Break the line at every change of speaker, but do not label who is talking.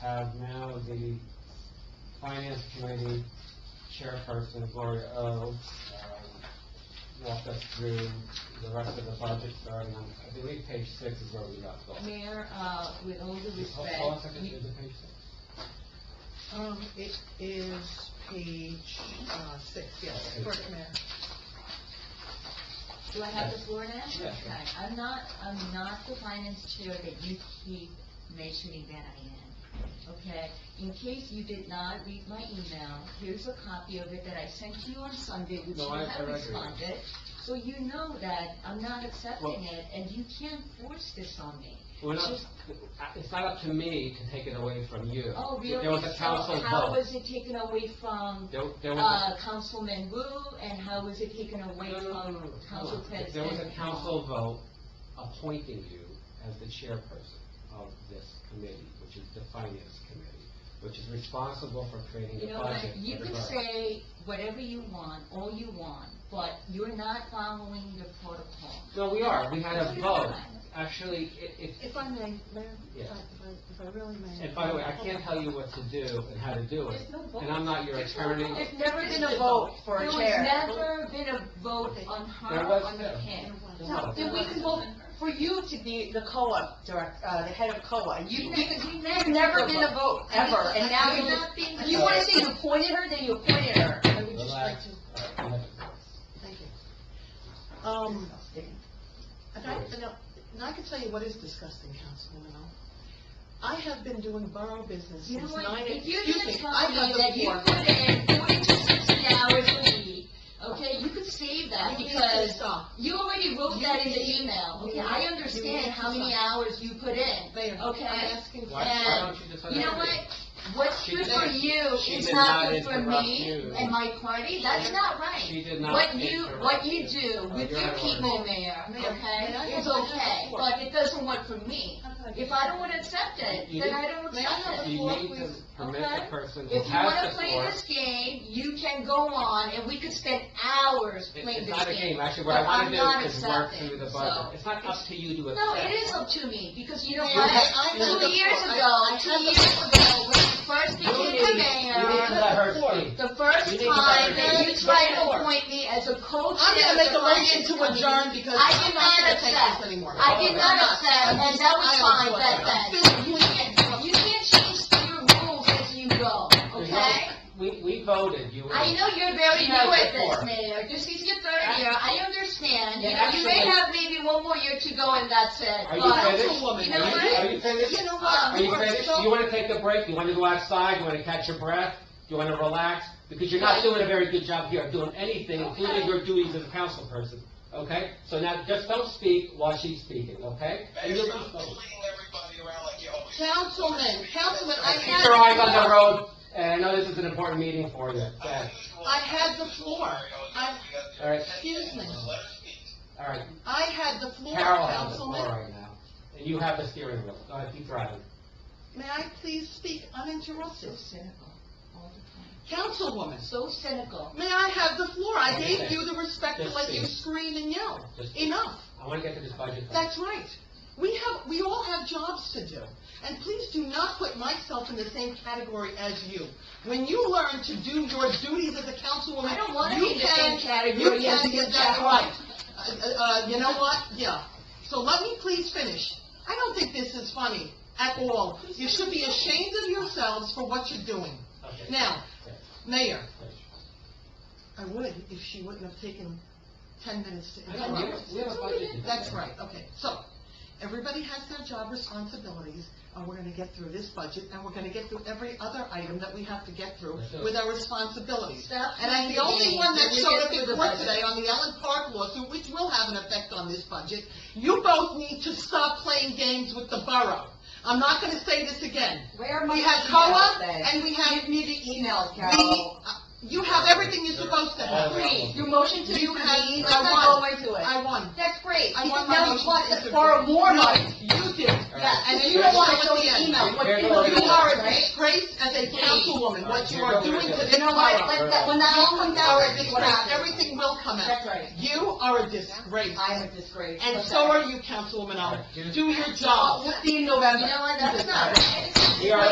have now the Finance Committee Chairperson Gloria O. um, walk us through the rest of the budget starting on, I believe page six is where we left off.
Mayor, uh, with all due
Hold hold on a
respect,
second, is it page six?
Um, it is page, uh, six, yes, first man.
do I have the floor now?
Yeah, sure.
Okay, I'm not, I'm not the finance chair that you keep mentioning that I am, okay? In case you did not read my email, here's a copy of it that I sent to you on Sunday, which
No,
you
I- I
have
read it.
responded. So you know that I'm not accepting
Well-
it, and you can't force this on me.
We're not,
Just-
it's not up to me to take it away from you.
Oh, really?
There was a council
So how
vote.
was it taken away from
There, there was
uh, Councilman Wu, and how was it taken
a...
away
No, no, no, no, no.
from Council President?
There was a council vote appointing you as the chairperson of this committee, which is the finance committee, which is responsible for creating the
You know what,
budget.
you
for the
can
borough.
say whatever you want, all you want, but you're not following the protocol.
No, we are, we had
No,
a
you're
vote.
not.
Actually, it, it,
If I may, Mayor, if I-
Yes.
if I- if I really may.
and by the way, I can't tell you what to do and how to do it.
There's no vote.
And I'm not your
There's no
attorney.
vote.
There's never been a vote for a chair.
There was never been a vote on
There
her,
was
on
no-
him.
No, then we can vote for you to be the COA direct, uh, the head of COA. You,
We've
you-
never-
you've never been a vote, ever, and now
You're
you,
not being-
if you wanna say you appointed her, then you appointed her.
I would just like
Relax.
to,
All right, you have it.
thank you. Um, and I, and I- and I can tell you what is disgusting, Councilwoman O. I have been doing borough business
You know
since
what,
nine,
if you're
excuse
gonna
me,
tell
I
me
have
that
been
you
working.
put in forty to sixty hours a week, okay, you could save that
You need to
because
stop.
you already wrote that in the
You-
email,
you-
okay, I
you-
understand how many hours you put in,
Mayor,
okay?
I'm asking for
Why, why don't you just let
You know
her do it?
what, what's
She
good for
did-
you
she
is
did
not
not
good for
interrupt
me
you.
and my party, that's
She-
not right.
she did not
What you, what you
interrupt you.
do
Oh,
with
you're
your
out of order.
people, Mayor,
Mayor,
okay,
may I
is
have-
okay, but it doesn't work for me. If I don't wanna accept it,
You
then
did-
I don't
May I
accept
have
it.
a
You
floor,
need to
please?
permit
Okay.
the person who
If you wanna
has the
play
floor.
this game, you can go on, and we could spend hours
It-
playing
It's
this
not a game,
game.
actually, what I
but
wanna
I'm not
do is work
accepting,
through the
so-
budget. It's not up to you to accept.
No, it is up to me, because you know
Mayor,
what?
I- I have
Two
the
years
floor.
ago,
I- I
two
have the
years ago, when you first became the
You need to
mayor,
let her
Floor.
speak.
uh, the first
you need to
time
let her
that
do
you
it.
tried to
Floor.
appoint me as a co-chair.
I'm gonna
of
make
the
a motion
finance
to
committee,
adjourn because
I
I'm
did
not
not
gonna take
accept.
this anymore.
I did not accept,
I'm
and that was
just-
fine,
I am fine.
but then, you can't, you can't change your rules as you go,
There's no-
okay?
We, we voted, you.
I know you're very
She
new
has
at this,
before.
Mayor, this is your third year, I understand, you
Yeah,
know, you may
actually-
have maybe one more year to go and that's it,
Are you
but,
finished?
Councilwoman,
you know
Are
what?
Are you finished?
You know what?
Um,
Are you
are
finished?
so-
Do you wanna take a break? Do you wanna go outside? Do you wanna catch your breath? Do you wanna relax? Because you're not
Right.
doing a very good job here of doing anything, including
Okay.
your duties as a council person, okay? So now, just don't speak while she's speaking, okay?
Mayor,
And you'll
stop
be fine.
bullying everybody around like you always. do.
Councilman, Councilman, I
Keep
had.
your eyes on the road, and I know this is an important meeting for you. Go
I
ahead.
unusual-
I had the floor.
Mario, you-
I-
you got the-
All right.
Excuse me.
Let her speak.
All right,
I had the floor,
Carol has the floor
Councilman.
right now, and you have the steering wheel. Go ahead, keep driving.
May I please speak
So
uninterrupted?
cynical, all the time,
Councilwoman,
so cynical.
may I have the floor? I gave
Okay.
you the respect to
Just
let you
speak.
scream and yell.
Just-
Enough.
I want to get to this budget. thing.
That's right. We have, we all have jobs to do. And please do not put myself in the same category as you. When you learn to do your duties as a councilwoman,
I don't wanna
you
be in the same
can-
category
You
as
can
you,
get that
Jack.
right. Uh, uh, you know what? Yeah. So let me please finish. I don't think this is funny at all. You should be ashamed of yourselves for what you're doing.
Okay.
Now,
Okay.
Mayor,
Okay.
I would if she wouldn't have taken ten minutes to
I don't know,
interrupt.
we have a budget. to
That's
do.
right, okay, so, everybody has their job responsibilities, and we're gonna get through this budget, and we're gonna get through every other item that we have to get through
That's it.
with our responsibilities.
Stop
And I'm the only
thinking
one that
you
showed
get
up in
through the
court
budget.
today on the Ellen Park lawsuit, which will have an effect on this budget. You both need to stop playing games with the borough. I'm not gonna say this again.
Where are my
We had
emails
COA,
then?
and we had
Give me the emails,
the,
Carol.
uh, you have everything you're supposed to have.
Please, your motion to
You had-
reconvene,
I
let's not go
won.
into it.
I won.
That's great,
I
because
want my
now
motion
it's what,
to intervene.
for more
No,
money.
You did.
Yeah, and then you
Yes,
don't wanna
so
show
at the
the
end.
email, what
Here
people
go.
do
You are a
right?
disgrace as a councilwoman, what you are doing to this
You know what,
borough.
let that, when that all comes
You
out,
are a
we'll see what
disgrace,
happens.
everything will come out.
That's right.
You are a disgrace.
I am a disgrace.
And
Okay.
so are you, Councilwoman Allen. Do your
Uh,
job.
We'll see in November.
You know what, that's not right.
We are